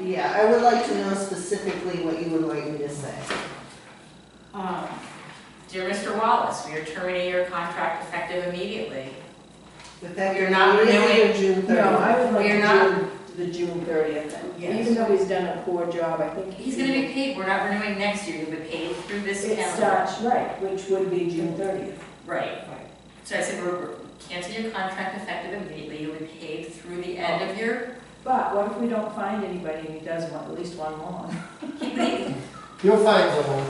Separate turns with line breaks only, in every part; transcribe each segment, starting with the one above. Yeah, I would like to know specifically what you would like me to say.
Um, Dear Mr. Wallace, we are terminating your contract effective immediately.
But that
You're not
immediately or June
No,
thirtieth.
I would like
We are
to do the June thirtieth
Yes.
then, even though he's done a poor job, I think.
He's gonna be paid, we're not renewing next year, you'll be paid through this
It
calendar.
starts, right, which would be June thirtieth.
Right. So I said, we're, we're- cancel your contract effective immediately, you'll be paid through the end of your,
But what if we don't find anybody who does one, at least one more?
You'll find someone.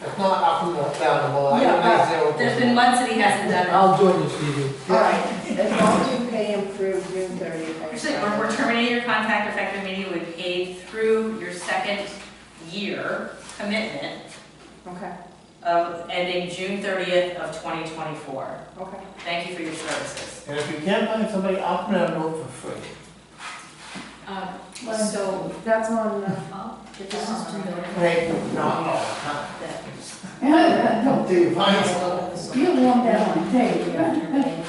If not, I'll come down the hall. I
Yeah,
don't
but
think they will.
there's been months that he hasn't done
I'll join you, Stevie.
All right, as long as you pay him through June thirtieth.
it. Actually, we're, we're terminating your contract effective immediately, you'll be paid through your second year commitment
Okay,
of ending June thirtieth of twenty twenty-four.
okay.
Thank you for your services.
And if you can't find somebody, I'll come down and look for free.
Um,
Well,
so,
That's on, uh,
this is too good.
Hey, not all the time.
you
Don't do, find someone.
want that one, hey.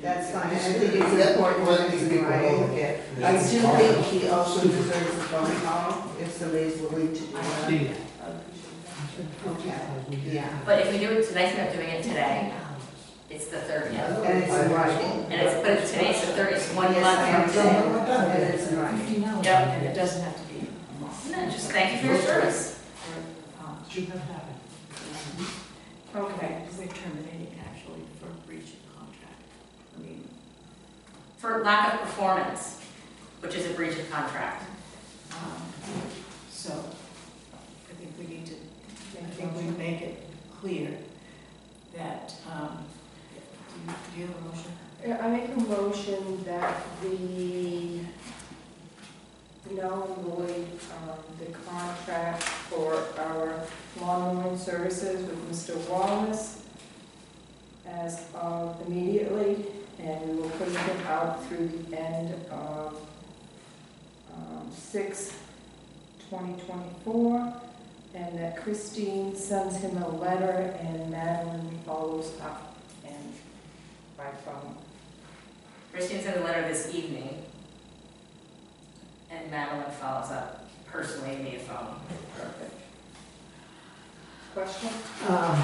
That's fine, I think it's important
Well,
for him
you
to
can
be
go
writing.
over it.
I do think he also deserves a phone call if somebody's willing to do that.
Steve.
Okay, yeah.
But if we do it, tonight's not doing it today, it's the thirtieth.
And it's in writing.
And it's, but it's today's the thirtieth, it's one
Yes, I
month from today.
understand. And it's in writing.
Yep.
And it doesn't have to be a month.
No, just thank you for your service.
Um,
Okay,
We're terminating actually for breach of contract. I mean,
For lack of performance, which is a breach of contract.
um, so I think we need to, I think we make it clear that, um, do you, do you have a motion?
Yeah, I make a motion that we null and void um, the contract for our lawn mowing services with Mr. Wallace as of immediately, and we will put it out through the end of um, six, twenty twenty-four, and that Christine sends him a letter and Madeline follows up and by phone.
Christine sent a letter this evening, and Madeline follows up personally via phone.
Perfect. Question?
Um,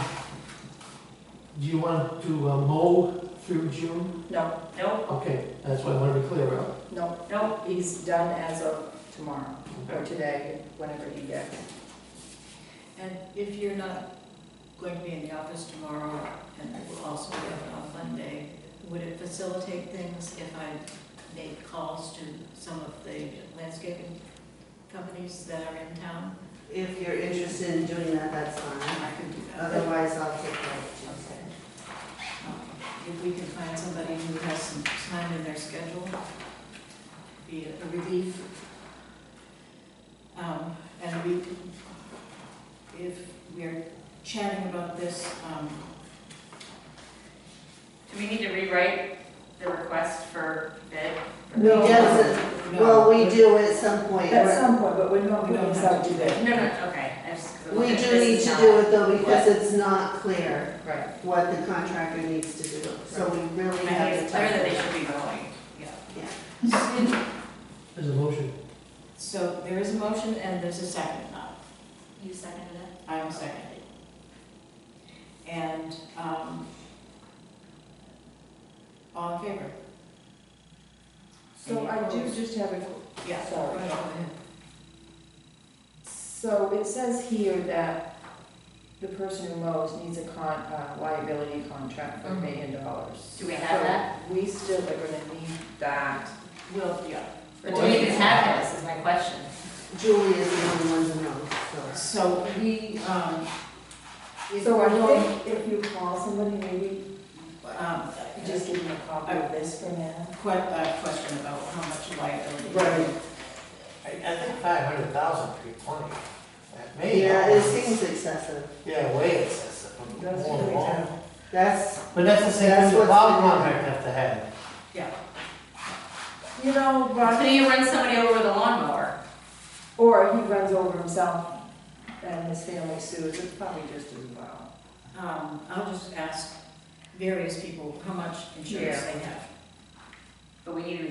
Do you want to uh, mow through June?
No,
Nope,
Okay, that's what I want to be clear about.
no,
nope.
he's done as of tomorrow, or today, whenever he gets.
And if you're not going to be in the office tomorrow, and we'll also be off Monday, would it facilitate things if I made calls to some of the landscaping companies that are in town?
If you're interested in doing that, that's fine.
I could do that.
Otherwise, I'll take that.
Um, If we can find somebody who has some time in their schedule, be a relief. Um, And we, can- if we're chatting about this, um,
Do we need to rewrite the request for bid?
No.
He doesn't,
no.
well, we do at some point.
At some point, but we're not
We don't
putting this
have
out
to do
today.
No, no, okay, I just. 'cause I'm
We
looking at
do need
this
to
now.
do it though, because it's not clear
Right.
what the contractor needs to do, so we really
I
have
think
to
it's clear that they
tackle
should be going,
So-
There's a motion.
So there is a motion and there's a second now.
You seconded it?
I'm seconding. And, um, all in favor?
So I do just have a,
Yeah.
Sorry.
Right, go ahead.
so it says here that the person who mows needs a con, uh, liability contract for a
Mhm.
million dollars.
Do we have
So
that?
We still are gonna need that.
Well, yeah.
Or do we even have this, is my question.
it. Julie is the only one who knows, so.
So we, um. if
So I
we're going-
think if you call somebody, maybe
Um,
you
just
just give them a copy of this for now.
a que- a question about how much liability.
Right.
I, I think five hundred thousand would be plenty. That may.
Yeah, it seems excessive.
Yeah, way excessive.
That's
More than
really
all.
tough.
That's,
But that's the same
That's
thing the
what's
power
been-
contract have to have.
You know,
So
but,
you run somebody over with a lawnmower?
or he runs over himself and his family sues, it's probably just as well.
Um, I'll just ask various people how much insurance they have.
But we need to